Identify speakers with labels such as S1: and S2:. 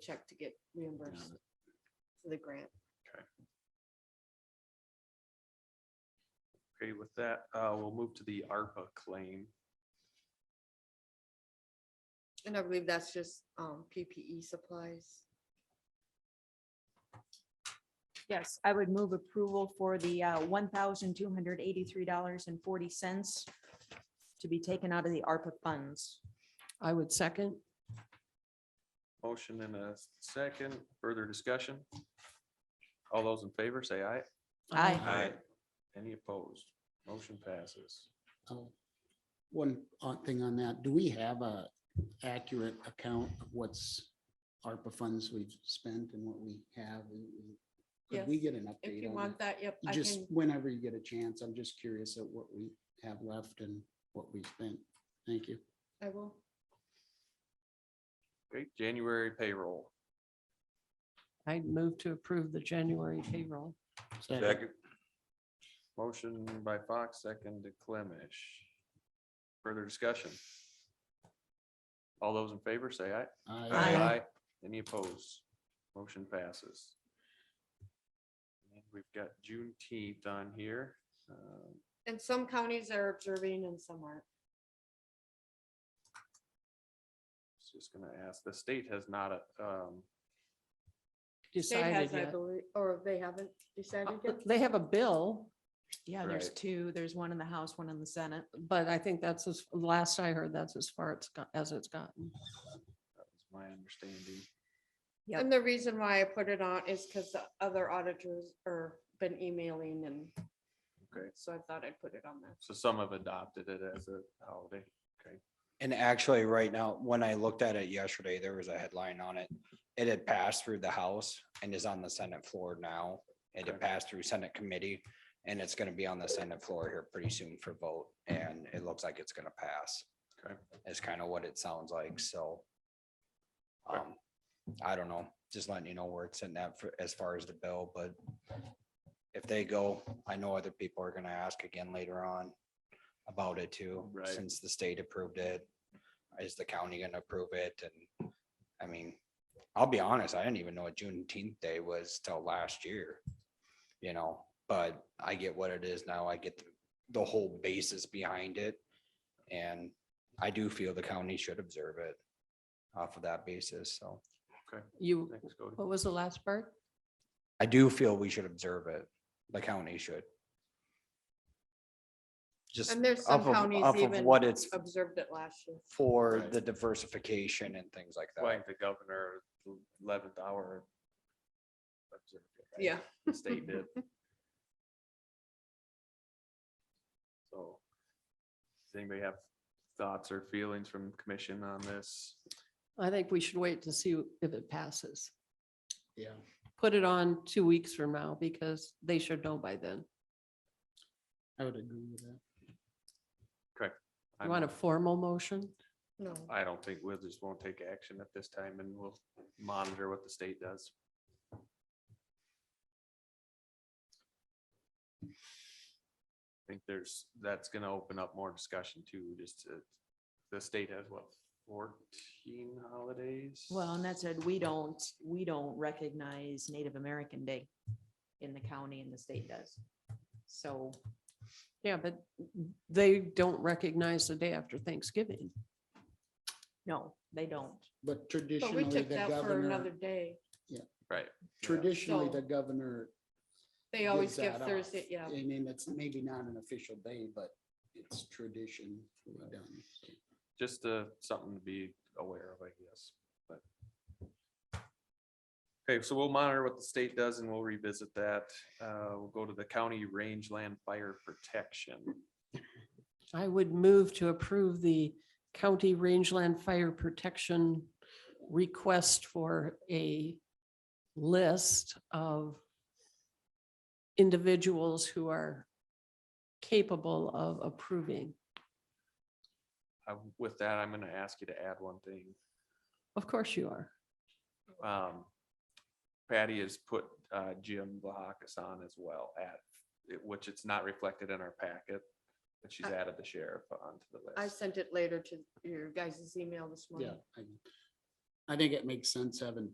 S1: check to get reimbursed for the grant.
S2: Okay, with that, uh, we'll move to the ARPA claim.
S1: And I believe that's just um, PPE supplies.
S3: Yes, I would move approval for the uh, $1,283.40 to be taken out of the ARPA funds.
S4: I would second.
S2: Motion and a second, further discussion. All those in favor, say aye.
S3: Aye.
S2: Any opposed? Motion passes.
S5: Oh, One odd thing on that, do we have a accurate account of what's ARPA funds we've spent and what we have? and- and Could we
S1: Yes,
S5: get an
S1: If
S5: update
S1: you
S5: on
S1: want that, yep,
S5: that?
S1: I
S5: Just
S1: can,
S5: whenever you get a chance, I'm just curious at what we have left and what we spent. Thank you.
S1: I will.
S2: Okay, January payroll.
S4: I'd move to approve the January payroll.
S5: Second.
S2: Motion by Fox, second to Clemish. Further discussion. All those in favor, say aye.
S5: Aye.
S2: Any opposed? Motion passes. And We've got Juneteenth on here. Um,
S1: And some counties are observing and some aren't.
S2: was Just gonna ask, the state has not, uh, um,
S1: State
S4: Decided
S1: has, I
S4: yet. Uh,
S1: believe, or they haven't decided yet.
S4: They have a bill,
S3: Yeah, there's
S2: Right.
S3: two. There's one in the House, one in the Senate.
S4: but I think that's as, last I heard, that's as far it's got, as it's gotten.
S2: that was my understanding.
S3: Yep.
S1: And the reason why I put it on is because the other auditors are been emailing and
S2: Okay,
S1: so I thought I'd put it on there.
S2: so some have adopted it as a holiday.
S6: And actually, right now, when I looked at it yesterday, there was a headline on it. It had passed through the House and is on the Senate floor now. It
S2: Okay.
S6: had passed through Senate Committee and it's gonna be on the Senate floor here pretty soon for vote and it looks like it's gonna pass.
S2: Okay.
S6: Is kind of what it sounds like, so.
S2: Okay.
S6: Um, I don't know, just letting you know where it's in that for, as far as the bill, but if they go, I know other people are gonna ask again later on about it too.
S2: Right.
S6: Since the state approved it, is the county gonna approve it? And, I mean, I'll be honest, I didn't even know what Juneteenth day was till last year. You know, but I get what it is now. I get the, the whole basis behind it. And I do feel the county should observe it off of that basis, so.
S4: You,
S2: Thanks, Cody.
S4: what was the last part?
S6: I do feel we should observe it, the county should. Just
S1: And there's some
S6: off of,
S1: counties
S6: off of
S1: even
S6: what it's
S1: observed it last year.
S6: for,
S2: Right.
S6: the diversification and things like that.
S2: Like the governor, eleventh hour. observed it, right?
S1: Yeah.
S2: The state did. So, does anybody have thoughts or feelings from commission on this?
S4: I think we should wait to see if it passes.
S5: Yeah.
S4: Put it on two weeks from now because they should know by then.
S5: I would agree with that.
S4: You want a formal motion?
S1: No.
S2: I don't think we'll just won't take action at this time and we'll monitor what the state does. I think there's, that's gonna open up more discussion too, just to, the state has what, fourteen holidays?
S3: Well, and that said, we don't, we don't recognize Native American Day in the county and the state does. So,
S4: Yeah, but they don't recognize the day after Thanksgiving.
S3: no, they don't.
S5: But
S1: But we
S5: traditionally,
S1: took
S5: the
S1: that for another
S5: governor,
S1: day.
S2: Right.
S5: traditionally,
S1: So-
S5: the governor.
S1: They always
S5: gives
S1: give
S5: that off.
S1: Thursday, yeah.
S5: I mean, it's maybe not an official day, but it's tradition. we've done.
S2: Just, uh, something to be aware of, I guess, but. Okay, so we'll monitor what the state does and we'll revisit that. Uh, we'll go to the county rangeland fire protection.
S4: I would move to approve the county rangeland fire protection request for a list of individuals who are capable of approving.
S2: I- With that, I'm gonna ask you to add one thing.
S4: Of course you are.
S2: Um, Patty has put uh, Jim Vlahakis on as well at, it- which it's not reflected in our packet, but she's
S1: I-
S2: added the sheriff onto the
S1: I
S2: list.
S1: sent it later to your guys' email this
S5: Yeah.
S1: morning.
S5: I- I think it makes sense having